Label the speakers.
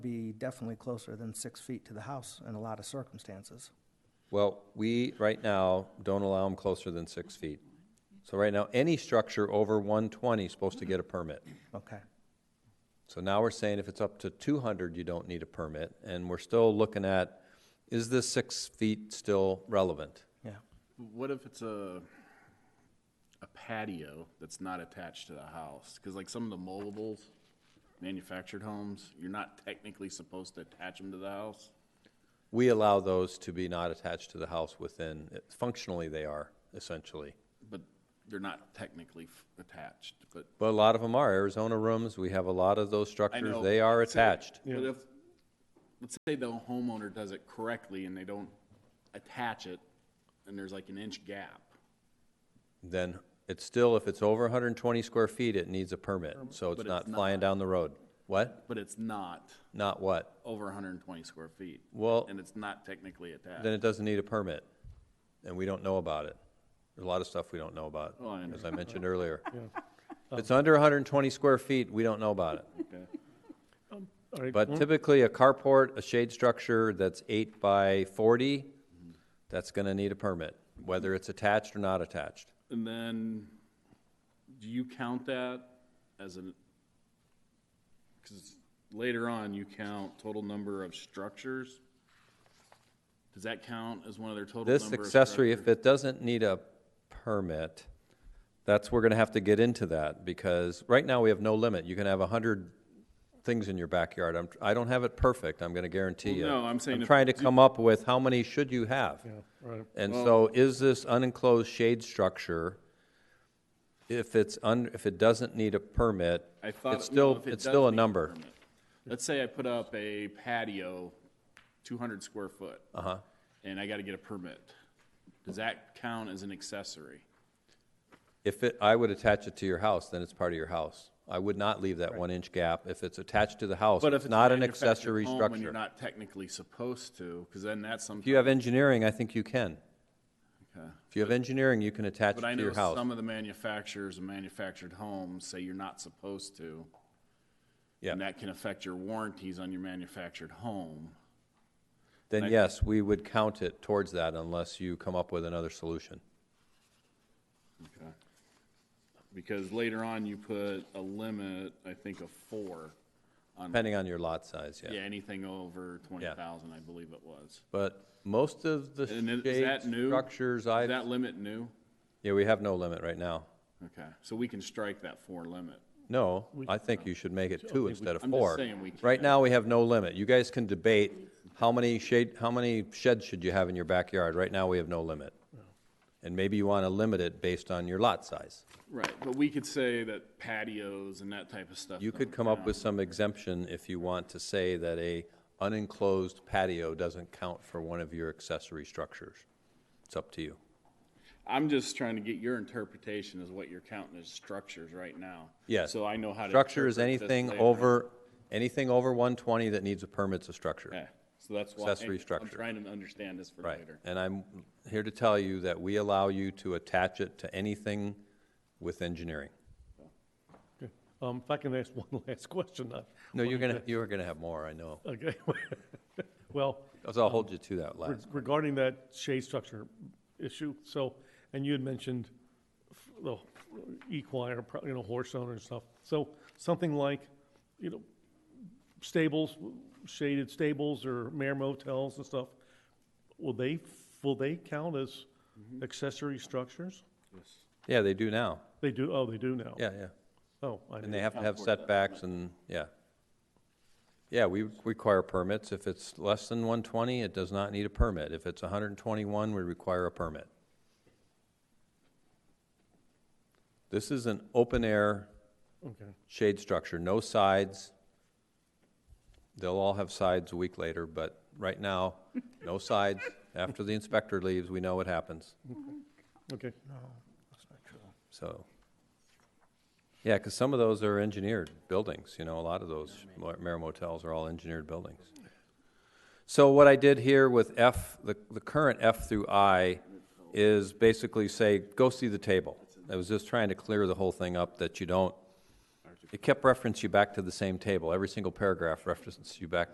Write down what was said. Speaker 1: be definitely closer than six feet to the house in a lot of circumstances.
Speaker 2: Well, we, right now, don't allow them closer than six feet. So right now, any structure over 120 is supposed to get a permit.
Speaker 1: Okay,
Speaker 2: So now we're saying if it's up to 200, you don't need a permit, and we're still looking at, is this six feet still relevant?
Speaker 1: yeah.
Speaker 3: What if it's a, a patio that's not attached to the house? Because like some of the movables, manufactured homes, you're not technically supposed to attach them to the house.
Speaker 2: We allow those to be not attached to the house within, functionally, they are, essentially.
Speaker 3: But they're not technically f- attached, but
Speaker 2: But a lot of them are. Arizona rooms, we have a lot of those
Speaker 3: I
Speaker 2: structures.
Speaker 3: know.
Speaker 2: They are
Speaker 3: Let's say-
Speaker 2: attached.
Speaker 3: But if, let's say the homeowner does it correctly and they don't attach it, and there's like an inch gap.
Speaker 2: Then it's still, if it's over 120 square feet, it needs a permit. So it's
Speaker 3: But
Speaker 2: not
Speaker 3: it's
Speaker 2: flying
Speaker 3: not.
Speaker 2: down the road. What?
Speaker 3: But it's not
Speaker 2: Not what?
Speaker 3: over hundred and twenty square feet.
Speaker 2: Well-
Speaker 3: And it's not technically attached.
Speaker 2: Then it doesn't need a permit, and we don't know about it. There's a lot of stuff we don't know about,
Speaker 3: Oh, I
Speaker 2: as I mentioned earlier. If it's under 120 square feet, we don't know about it.
Speaker 3: Okay.
Speaker 4: All right,
Speaker 2: But typically, a carport, a shade structure that's eight by 40,
Speaker 3: Mm-hmm.
Speaker 2: that's going to need a permit, whether it's attached or not attached.
Speaker 3: And then, do you count that as an, because later on, you count total number of structures? Does that count as one of their total number of
Speaker 2: This
Speaker 3: structures?
Speaker 2: accessory, if it doesn't need a permit, that's, we're gonna have to get into that, because right now we have no limit. You can have a hundred things in your backyard. I'm, I don't have it perfect, I'm gonna guarantee
Speaker 3: Well,
Speaker 2: you.
Speaker 3: no, I'm saying if-
Speaker 2: trying to come up with how many should you have?
Speaker 4: yeah, all right.
Speaker 2: And so is this unenclosed shade structure, if it's un, if it doesn't need a permit,
Speaker 3: I thought.
Speaker 2: it's
Speaker 3: no,
Speaker 2: still,
Speaker 3: if it
Speaker 2: it's
Speaker 3: does
Speaker 2: still a
Speaker 3: need
Speaker 2: number.
Speaker 3: permit. Let's say I put up a patio, two hundred square foot. Uh-huh. And I gotta get a permit. Does that count as an accessory?
Speaker 2: If it, I would attach it to your house, then it's part of your house. I would not leave that one-inch gap. If it's attached to the house,
Speaker 3: But if
Speaker 2: it's
Speaker 3: it's
Speaker 2: not
Speaker 3: a
Speaker 2: an
Speaker 3: manufactured
Speaker 2: accessory
Speaker 3: home
Speaker 2: structure.
Speaker 3: When you're not technically supposed to, because then that's something.
Speaker 2: If you have engineering, I think you can. If you have engineering, you can attach it
Speaker 3: But I
Speaker 2: to
Speaker 3: know
Speaker 2: your house.
Speaker 3: some of the manufacturers and manufactured homes say you're not supposed to.
Speaker 2: Yeah.
Speaker 3: And that can affect your warranties on your manufactured home.
Speaker 2: Then yes, we would count it towards that unless you come up with another solution.
Speaker 3: Because later on, you put a limit, I think, of four.
Speaker 2: Depending on your lot size,
Speaker 3: Yeah,
Speaker 2: yeah.
Speaker 3: anything over twenty thousand, I believe it was.
Speaker 2: But most of the
Speaker 3: And then, is that
Speaker 2: shade
Speaker 3: new?
Speaker 2: structures
Speaker 3: Is that
Speaker 2: I've,
Speaker 3: limit new?
Speaker 2: yeah, we have no limit right now.
Speaker 3: Okay, so we can strike that four limit.
Speaker 2: No, I think you should make it two instead of
Speaker 3: I'm just
Speaker 2: four.
Speaker 3: saying we
Speaker 2: Right
Speaker 3: can.
Speaker 2: now, we have no limit. You guys can debate how many shade, how many sheds should you have in your backyard? Right now, we have no limit. And maybe you want to limit it based on your lot size.
Speaker 3: Right, but we could say that patios and that type of stuff.
Speaker 2: You could
Speaker 3: don't
Speaker 2: come up
Speaker 3: count.
Speaker 2: with some exemption if you want to say that a unenclosed patio doesn't count for one of your accessory structures. It's up to you.
Speaker 3: I'm just trying to get your interpretation as what you're counting as structures right now.
Speaker 2: Yes.
Speaker 3: So I know how to.
Speaker 2: Structure is
Speaker 3: interpret this
Speaker 2: anything
Speaker 3: later.
Speaker 2: over, anything over 120 that needs a permit's a structure.
Speaker 3: Okay, so that's why.
Speaker 2: Accessory structure.
Speaker 3: I'm trying to understand this for
Speaker 2: Right.
Speaker 3: later.
Speaker 2: And I'm here to tell you that we allow you to attach it to anything with engineering.
Speaker 4: Okay. Um, If I can ask one last question, I-
Speaker 2: No, you're going to, you are going to have more, I know.
Speaker 4: okay. Well,
Speaker 2: 'Cause I'll hold you to that
Speaker 4: Re-
Speaker 2: last.
Speaker 4: Regarding that shade structure issue, so, and you had mentioned f- the equine or, pro- you know, horse owner and stuff. So something like, you know, stables, shaded stables or mare motels and stuff, will they, will they count as
Speaker 2: Mm-hmm.
Speaker 4: accessory structures?
Speaker 2: Yeah, they do now.
Speaker 4: They do, oh, they do now?
Speaker 2: Yeah, yeah.
Speaker 4: Oh, I
Speaker 2: And
Speaker 4: didn't
Speaker 2: they have to have setbacks and, yeah. Yeah, we require permits. If it's less than one twenty, it does not need a permit. If it's hundred and twenty-one, we require a permit. This is an open-air
Speaker 4: okay.
Speaker 2: shade structure, no sides. They'll all have sides a week later, but right now, no sides. After the inspector leaves, we know what happens.
Speaker 4: Okay,
Speaker 1: That's not true.
Speaker 2: So, yeah, because some of those are engineered buildings, you know, a lot of those mo- Mare motels are all engineered buildings. So what I did here with F, the, the current F through I is basically say, go see the table. I was just trying to clear the whole thing up that you don't, it kept reference you back to the same table. Every single paragraph references you back